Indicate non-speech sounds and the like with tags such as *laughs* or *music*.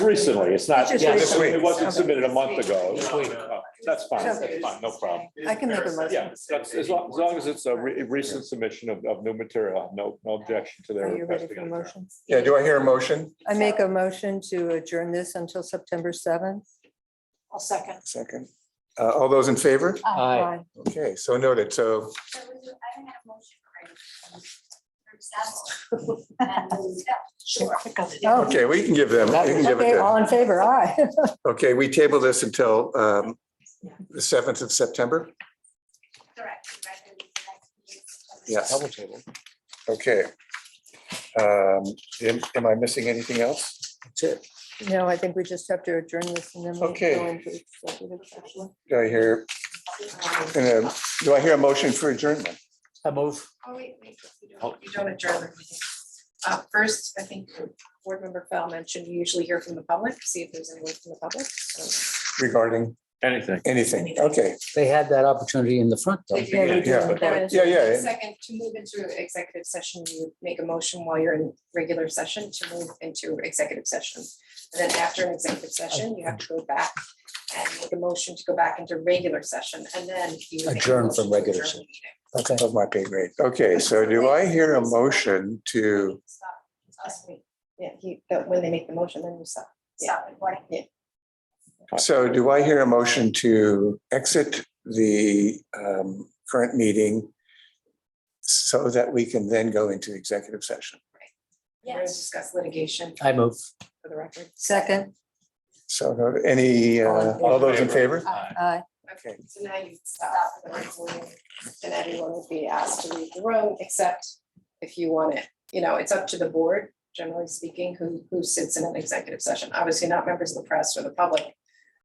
recently, it's not, It's just it recently. it wasn't submitted a month ago. This week. Oh, That's fine, So- that's fine, no problem. I can make a motion. Yeah, that's, as long, as long as it's a re- recent submission of, of new material, no, no objection to their Are you ready request. for motions? Yeah, do I hear a motion? I make a motion to adjourn this until September seventh. I'll second. Second. Uh, all those in favor? Oh. Uh, Aye. Okay, so noted. So So we do- I don't have a motion right. For example, and uh, move that. Sure. Oh. Okay, we can give them, we can give it Okay, all to, in favor, aye. *laughs* okay, we table this until um, the 7th of September? Correct. right, and that's- Yes. Okay. Um, Am am I missing anything else? That's it. No, I think we just have to adjourn this and then we Okay. go into executive session. Do I hear, and, um, do I hear a motion for adjournment? I move. Oh, wait, wait, you don't- you don't adjourn the meeting. Uh, First, I think Board Member Fell mentioned you usually hear from the public, see if there's anyone from the public. So Regarding Anything. anything? Okay, They had that opportunity in the front though. if you're Yeah, we do. yeah, but- That is- yeah, yeah. Second, to move into executive session, you would make a motion while you're in regular session to move into executive session. And then after an executive session, you have to go back and make a motion to go back into regular session, and then you. would make a Adjourn motion from to regular adjourn the session. meeting. Okay. Of my pay grade. Okay, so do I hear a motion to, Stop. Us, we- Yeah, he, but when they make the motion, then you stop. Stop recording. so do I hear a motion to exit the um, current meeting so that we can then go into executive session? We're gonna discuss litigation I move. for the record. Second, So uh, any, uh, all those in favor? aye. Okay, so now you stop the recording, and everyone will be asked to leave the room, except if you want it. You know, it's up to the board, generally speaking, who, who sits in an executive session. Obviously not members of the press or the public